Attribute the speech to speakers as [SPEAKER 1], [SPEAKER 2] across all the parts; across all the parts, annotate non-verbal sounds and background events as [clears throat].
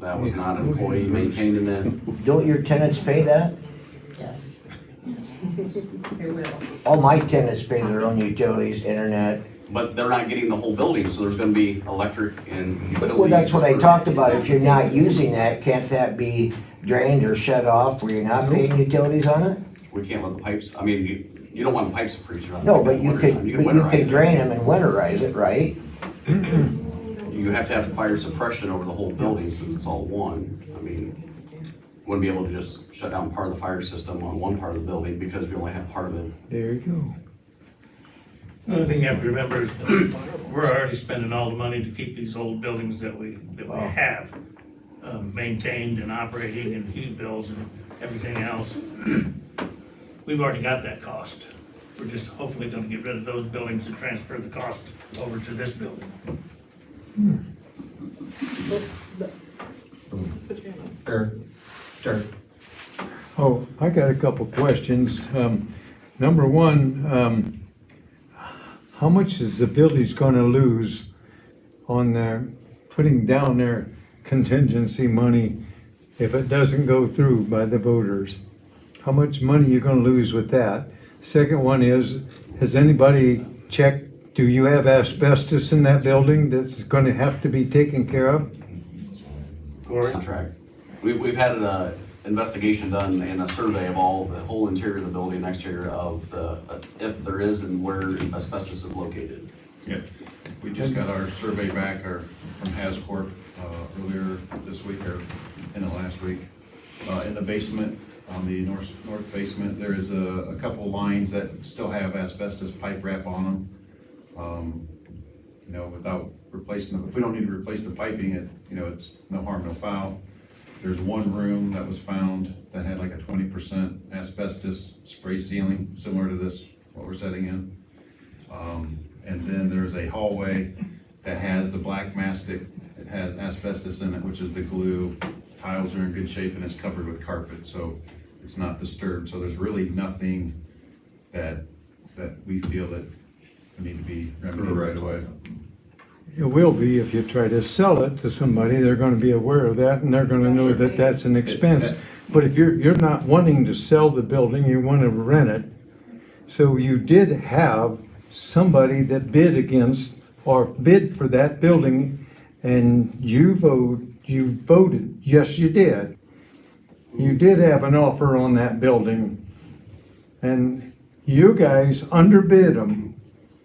[SPEAKER 1] That was not an employee maintaining that.
[SPEAKER 2] Don't your tenants pay that?
[SPEAKER 3] Yes. It will.
[SPEAKER 2] All my tenants pay their own utilities, internet.
[SPEAKER 1] But they're not getting the whole building, so there's gonna be electric and utilities.
[SPEAKER 2] Well, that's what I
[SPEAKER 1] for-
[SPEAKER 2] talked about. If you're not using that, can't that be drained or shut off where you're not paying utilities on it?
[SPEAKER 1] We can't let the pipes, I mean, you, you don't want the pipes to freeze. you're not
[SPEAKER 2] No,
[SPEAKER 1] gonna
[SPEAKER 2] but
[SPEAKER 1] do it
[SPEAKER 2] you
[SPEAKER 1] in the
[SPEAKER 2] could,
[SPEAKER 1] wintertime.
[SPEAKER 2] but
[SPEAKER 1] You
[SPEAKER 2] you
[SPEAKER 1] winterize
[SPEAKER 2] could
[SPEAKER 1] it.
[SPEAKER 2] drain them and winterize it, right?
[SPEAKER 1] You have to have fire suppression over the whole building since it's all one. I mean, wouldn't be able to just shut down part of the fire system on one part of the building because we only have part of it.
[SPEAKER 4] There you go.
[SPEAKER 5] Another thing you have to remember is [clears throat] we're already spending all the money to keep these old buildings that we, that we have uh, maintained and operating and heat bills and everything else. [clears throat] We've already got that cost. We're just hopefully gonna get rid of those buildings and transfer the cost over to this building.
[SPEAKER 6] Sure, sure.
[SPEAKER 4] Oh, I got a couple questions. Um, number one, um, how much is the village gonna lose on their, putting down their contingency money if it doesn't go through by the voters? How much money you gonna lose with that? Second one is, has anybody checked, do you have asbestos in that building that's gonna have to be taken care of?
[SPEAKER 5] Corey?
[SPEAKER 1] Contract. We've, we've had an uh, investigation done and a survey of all, the whole interior of the building, and exterior of the, uh, if there is and where asbestos is located.
[SPEAKER 7] Yeah, we just got our survey back, our, from Hascorp, uh, earlier this week, or in the last week. Uh, in the basement, on the north, north basement, there is a, a couple lines that still have asbestos pipe wrap on them. Um, you know, without replacing them, if we don't need to replace the piping, it, you know, it's no harm, no foul. There's one room that was found that had like a twenty percent asbestos spray ceiling, similar to this, what we're setting in. Um, and then there's a hallway that has the black mastic, it has asbestos in it, which is the glue. Tiles are in good shape and it's covered with carpet, so it's not disturbed, so there's really nothing that, that we feel that need to be remedied right away.
[SPEAKER 4] It will be if you try to sell it to somebody, they're gonna be aware of that and they're gonna know that that's an expense. But if you're, you're not wanting to sell the building, you wanna rent it. So you did have somebody that bid against or bid for that building and you vote, you voted, yes, you did. You did have an offer on that building. And you guys underbid them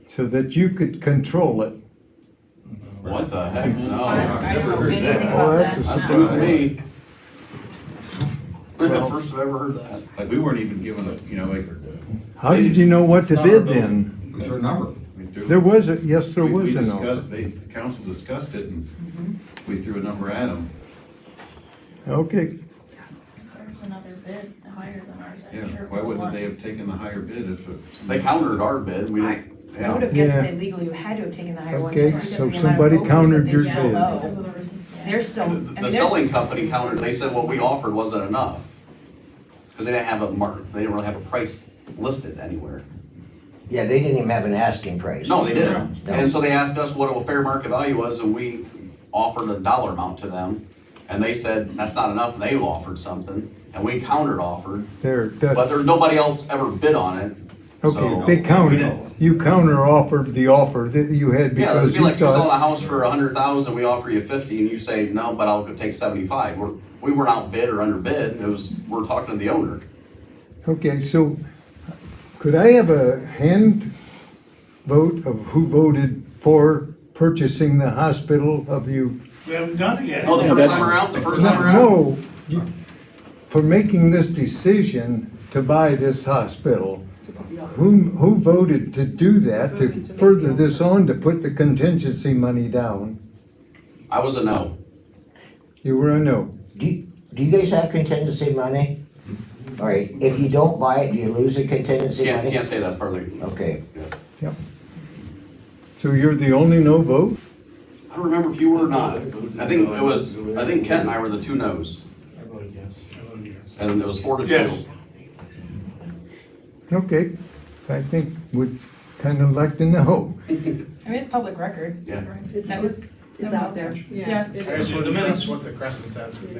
[SPEAKER 4] so that you could control it.
[SPEAKER 1] What the heck?
[SPEAKER 7] Oh,
[SPEAKER 1] No.
[SPEAKER 3] I don't know anything
[SPEAKER 4] Oh,
[SPEAKER 3] about
[SPEAKER 4] that's a
[SPEAKER 3] that.
[SPEAKER 1] That's news to
[SPEAKER 4] surprise.
[SPEAKER 1] me. First I've ever heard that.
[SPEAKER 7] Like, we weren't even given a, you know, like,
[SPEAKER 4] How did you know what to bid then?
[SPEAKER 6] Is there a number?
[SPEAKER 7] we threw.
[SPEAKER 4] There was a, yes, there
[SPEAKER 7] we- we
[SPEAKER 4] was an offer.
[SPEAKER 7] discussed- They, the council discussed it and we threw a number at them.
[SPEAKER 4] Okay,
[SPEAKER 8] There's another bid higher than ours,
[SPEAKER 7] Yeah,
[SPEAKER 8] I'm sure.
[SPEAKER 7] why
[SPEAKER 8] for
[SPEAKER 7] wouldn't
[SPEAKER 8] one.
[SPEAKER 7] they have taken the higher bid if? it-
[SPEAKER 1] They countered our bid, we didn't,
[SPEAKER 3] I would
[SPEAKER 1] yeah.
[SPEAKER 3] have guessed
[SPEAKER 4] Yeah.
[SPEAKER 3] that legally you had to have taken the higher one.
[SPEAKER 4] Okay,
[SPEAKER 3] just because
[SPEAKER 4] so
[SPEAKER 3] of the amount of
[SPEAKER 4] somebody
[SPEAKER 3] brokers that
[SPEAKER 4] countered
[SPEAKER 3] they
[SPEAKER 4] your
[SPEAKER 3] sell
[SPEAKER 4] bid.
[SPEAKER 8] Because of
[SPEAKER 3] low.
[SPEAKER 8] the recent- yeah.
[SPEAKER 3] They're still, I
[SPEAKER 1] The-
[SPEAKER 3] mean,
[SPEAKER 1] The
[SPEAKER 3] there's.
[SPEAKER 1] selling company countered, they said what we offered wasn't enough. Cause they didn't have a mark, they didn't really have a price listed anywhere.
[SPEAKER 2] Yeah, they didn't even have an asking price.
[SPEAKER 1] No, they didn't.
[SPEAKER 2] No.
[SPEAKER 1] And so they asked us what a fair market value was, and we offered a dollar amount to them. And they said, that's not enough, and they offered something, and we countered offered,
[SPEAKER 4] there,
[SPEAKER 1] but
[SPEAKER 4] that's,
[SPEAKER 1] there's nobody else ever bid on it, so.
[SPEAKER 4] okay, they
[SPEAKER 1] we
[SPEAKER 4] counter,
[SPEAKER 1] didn't-
[SPEAKER 4] you counter offered the offer that you had
[SPEAKER 1] Yeah, it'd
[SPEAKER 4] because
[SPEAKER 1] be
[SPEAKER 4] you
[SPEAKER 1] like you selling a
[SPEAKER 4] thought.
[SPEAKER 1] house for a hundred thousand, we offer you fifty, and you say, no, but I'll go take seventy-five. We're, we weren't outbid or underbid, it was, we're talking to the owner.
[SPEAKER 4] Okay, so could I have a hand vote of who voted for purchasing the hospital of you?
[SPEAKER 5] We haven't done it yet.
[SPEAKER 1] Oh, the first time around, the first time around?
[SPEAKER 4] No, you- for making this decision to buy this hospital. Who, who voted to do that, to further this on, to put the contingency money down?
[SPEAKER 1] I was a no.
[SPEAKER 4] You were a no.
[SPEAKER 2] Do, you- do you guys have contingency money? All right, if you don't buy it, do you lose the contingency
[SPEAKER 1] Can't,
[SPEAKER 2] money?
[SPEAKER 1] can't say that's part of the,
[SPEAKER 2] Okay,
[SPEAKER 4] Yep. So you're the only no vote?
[SPEAKER 1] I don't remember if you were or not. I think it was, I think Kent and I were the two no's, and it was four to two.
[SPEAKER 5] Yes.
[SPEAKER 4] Okay, I think we'd kind of like to know.
[SPEAKER 3] I mean, it's public record.
[SPEAKER 1] Yeah.
[SPEAKER 3] That was,
[SPEAKER 9] It's out there.
[SPEAKER 3] Yeah.
[SPEAKER 10] As for the minutes,
[SPEAKER 3] What the Crescent says, 'cause they